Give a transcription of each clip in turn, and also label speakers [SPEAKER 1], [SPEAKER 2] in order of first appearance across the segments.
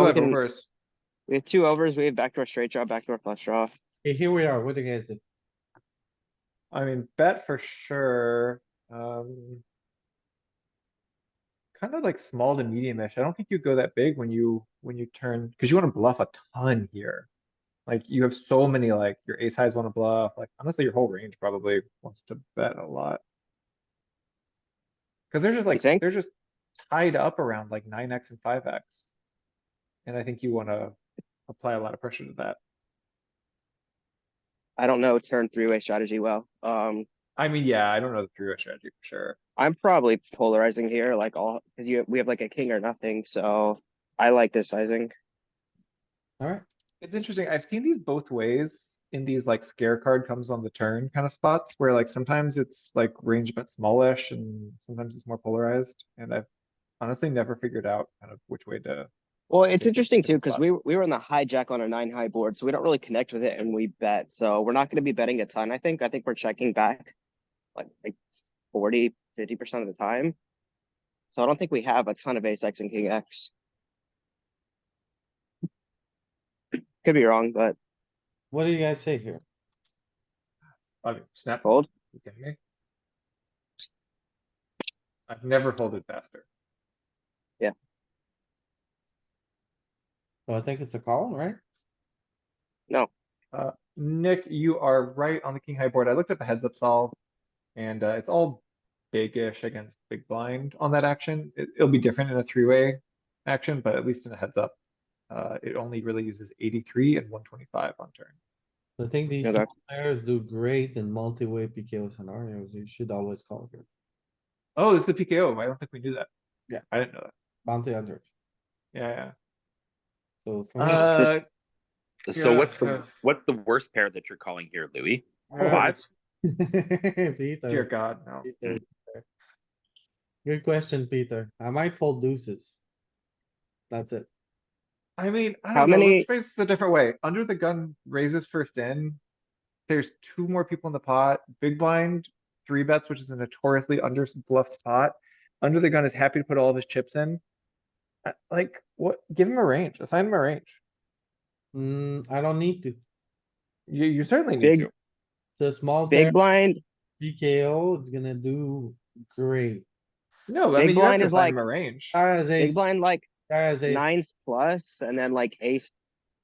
[SPEAKER 1] we
[SPEAKER 2] have
[SPEAKER 1] can-
[SPEAKER 2] overs.
[SPEAKER 1] We have two overs, we have backdoor straight draw, backdoor flush draw.
[SPEAKER 3] Okay, Here we are, what do you guys do?
[SPEAKER 4] I mean, bet for sure, um. Kind of like small to medium-ish. I don't think you go that big when you, when you turn, cause you wanna bluff a ton here. Like you have so many, like your ace highs wanna bluff, like honestly, your whole range probably wants to bet a lot. Cause they're just like,
[SPEAKER 1] think?
[SPEAKER 4] they're just tied up around like nine X and five X. And I think you wanna apply a lot of pressure to that.
[SPEAKER 1] I don't know turn three-way strategy well. Um,
[SPEAKER 4] I mean, yeah, I don't know the three-way strategy for sure.
[SPEAKER 1] I'm probably polarizing here, like all, cause you, we have like a king or nothing, so I like this sizing.
[SPEAKER 3] Alright,
[SPEAKER 4] It's interesting. I've seen these both ways in these like scare card comes on the turn kind of spots where like sometimes it's like range but smallish and sometimes it's more polarized. And I've honestly never figured out kind of which way to.
[SPEAKER 1] Well, it's
[SPEAKER 4] Yeah,
[SPEAKER 1] interesting too,
[SPEAKER 4] different
[SPEAKER 1] cause
[SPEAKER 4] spots.
[SPEAKER 1] we, we were on the hijack on a nine high board, so we don't really connect with it and we bet, so we're not gonna be betting a ton, I think. I think we're checking back. Like, like forty, fifty percent of the time. So I don't think we have a ton of ace X and king X. Could be wrong, but
[SPEAKER 3] what do you guys say here?
[SPEAKER 4] I mean, snap fold.
[SPEAKER 1] fold.
[SPEAKER 4] you kidding me? I've never folded faster.
[SPEAKER 3] So I think it's a call, right?
[SPEAKER 4] Uh, Nick, you are right on the king high board. I looked at the heads up solve. And uh, it's all big-ish against big blind on that action. It, will be different in a three-way action, but at least in a heads up. Uh, it only really uses eighty-three and one twenty-five on turn.
[SPEAKER 3] I think these
[SPEAKER 1] Yeah, that-
[SPEAKER 3] small players do great in multi-way PKO scenarios. You should always call here.
[SPEAKER 4] Oh, this is a PKO. I don't think we knew that.
[SPEAKER 3] Yeah.
[SPEAKER 4] I didn't know that.
[SPEAKER 3] Bounty under.
[SPEAKER 4] Yeah,
[SPEAKER 3] So for
[SPEAKER 4] yeah.
[SPEAKER 3] me,
[SPEAKER 4] Uh,
[SPEAKER 5] So
[SPEAKER 4] Yeah,
[SPEAKER 5] what's
[SPEAKER 4] yeah.
[SPEAKER 5] the, what's the worst pair that you're calling here, Louis?
[SPEAKER 3] uh,
[SPEAKER 5] Fives?
[SPEAKER 3] Peter,
[SPEAKER 4] dear God, no.
[SPEAKER 3] Peter, Peter. Good question, Peter. I might fold deuces. That's it.
[SPEAKER 4] I mean, I
[SPEAKER 1] How
[SPEAKER 4] don't know,
[SPEAKER 1] many-
[SPEAKER 4] let's phrase this a different way. Under the gun raises first in. There's two more people in the pot, big blind, three bets, which is a notoriously under bluff spot. Under the gun is happy to put all of his chips in. I- Like, what, give him a range, assign him a range.
[SPEAKER 3] Hmm, I don't need to.
[SPEAKER 4] You, you certainly need
[SPEAKER 1] Big-
[SPEAKER 4] to.
[SPEAKER 3] It's a small pair,
[SPEAKER 1] Big blind,
[SPEAKER 3] PKO, it's gonna do great.
[SPEAKER 4] No, I mean,
[SPEAKER 1] big
[SPEAKER 4] you have
[SPEAKER 1] blind
[SPEAKER 4] to
[SPEAKER 1] is
[SPEAKER 4] assign him
[SPEAKER 1] like-
[SPEAKER 4] a range.
[SPEAKER 3] Guy has
[SPEAKER 1] big
[SPEAKER 3] ace,
[SPEAKER 1] blind like
[SPEAKER 3] guy has ace, I
[SPEAKER 1] nines plus and then like ace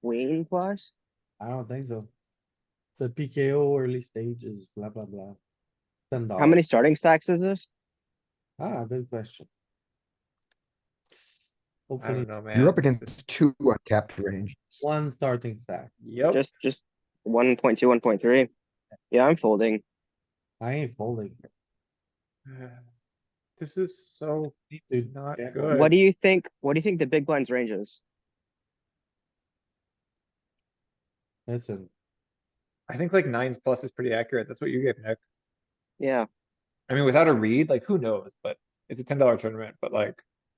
[SPEAKER 1] queen plus.
[SPEAKER 3] don't think so. It's a PKO early stages, blah, blah, blah. Ten dollars.
[SPEAKER 1] How many starting stacks is this?
[SPEAKER 3] Ah, good question.
[SPEAKER 4] I don't
[SPEAKER 3] Hopefully,
[SPEAKER 4] know, man.
[SPEAKER 6] You're up
[SPEAKER 4] This-
[SPEAKER 6] against two uncapped range.
[SPEAKER 3] one starting stack.
[SPEAKER 4] Yep,
[SPEAKER 1] Just just one point two, one point three. Yeah, I'm folding.
[SPEAKER 3] I ain't folding. here.
[SPEAKER 4] this is so
[SPEAKER 3] Need to-
[SPEAKER 4] not
[SPEAKER 3] Yeah.
[SPEAKER 4] good.
[SPEAKER 1] What do you think? What do you think the big blind's range is?
[SPEAKER 3] Listen,
[SPEAKER 4] I think like nines plus is pretty accurate. That's what you gave, Nick.
[SPEAKER 1] Yeah,
[SPEAKER 4] I mean, without a read, like who knows, but it's a ten dollar tournament, but like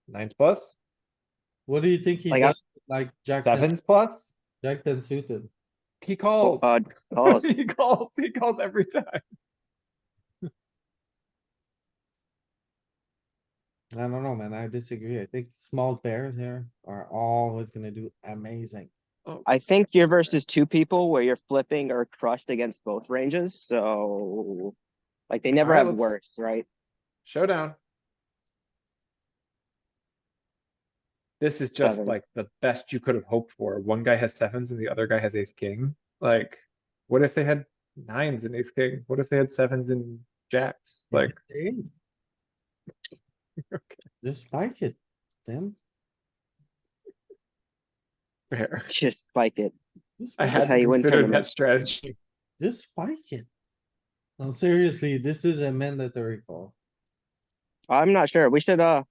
[SPEAKER 4] nines plus,
[SPEAKER 3] what do you think he
[SPEAKER 1] Like, I-
[SPEAKER 3] does? Like Jack,
[SPEAKER 4] uh,
[SPEAKER 3] ten-
[SPEAKER 4] sevens plus,
[SPEAKER 3] Jack ten suited.
[SPEAKER 4] he calls.
[SPEAKER 1] uh, calls.
[SPEAKER 4] He calls, he calls every time.
[SPEAKER 3] I don't know, man. I disagree. I think small pairs here are always gonna do amazing.
[SPEAKER 4] Oh,
[SPEAKER 1] I think you're versus two people where you're flipping or crushed against both ranges. So, like they never
[SPEAKER 4] Alright,
[SPEAKER 1] have
[SPEAKER 4] let's-
[SPEAKER 1] worse, right?
[SPEAKER 4] Showdown. This is just
[SPEAKER 1] Sevens.
[SPEAKER 4] like the best you could have hoped for. One guy has sevens and the other guy has ace king. Like, what if they had nines and ace king? What if they had sevens and jacks? Like,
[SPEAKER 3] Hey,
[SPEAKER 4] okay,
[SPEAKER 3] Just spike it, Tim.
[SPEAKER 4] fair.
[SPEAKER 1] Just spike it.
[SPEAKER 3] Just
[SPEAKER 4] I
[SPEAKER 3] spike
[SPEAKER 1] how
[SPEAKER 3] it.
[SPEAKER 4] hadn't
[SPEAKER 1] you win
[SPEAKER 4] considered that
[SPEAKER 1] tournaments.
[SPEAKER 4] strategy.
[SPEAKER 3] Just spike it. No, seriously, this is a mandatory call.
[SPEAKER 1] I'm not sure. We should uh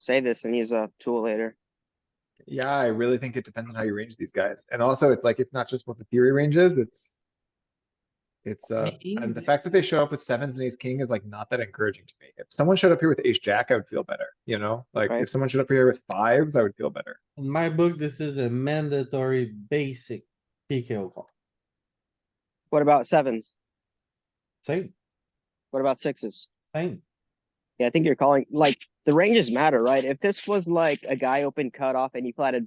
[SPEAKER 1] say this and use a tool later.
[SPEAKER 4] Yeah, I really think it depends on how you range these guys. And also, it's like, it's not just what the theory range is, it's. It's uh, and the fact that they show up with sevens and ace king is like not that encouraging to me. If someone showed up here with ace jack, I would feel better, you know? Like,
[SPEAKER 1] Right.
[SPEAKER 4] if someone showed up here with fives, I would feel better.
[SPEAKER 3] In my book, this is a mandatory basic PKO call.
[SPEAKER 1] What about sevens?
[SPEAKER 3] Same,
[SPEAKER 1] What about sixes?
[SPEAKER 3] same.
[SPEAKER 1] Yeah, I think you're calling like the ranges matter, right? If this was like a guy open cutoff and you flatted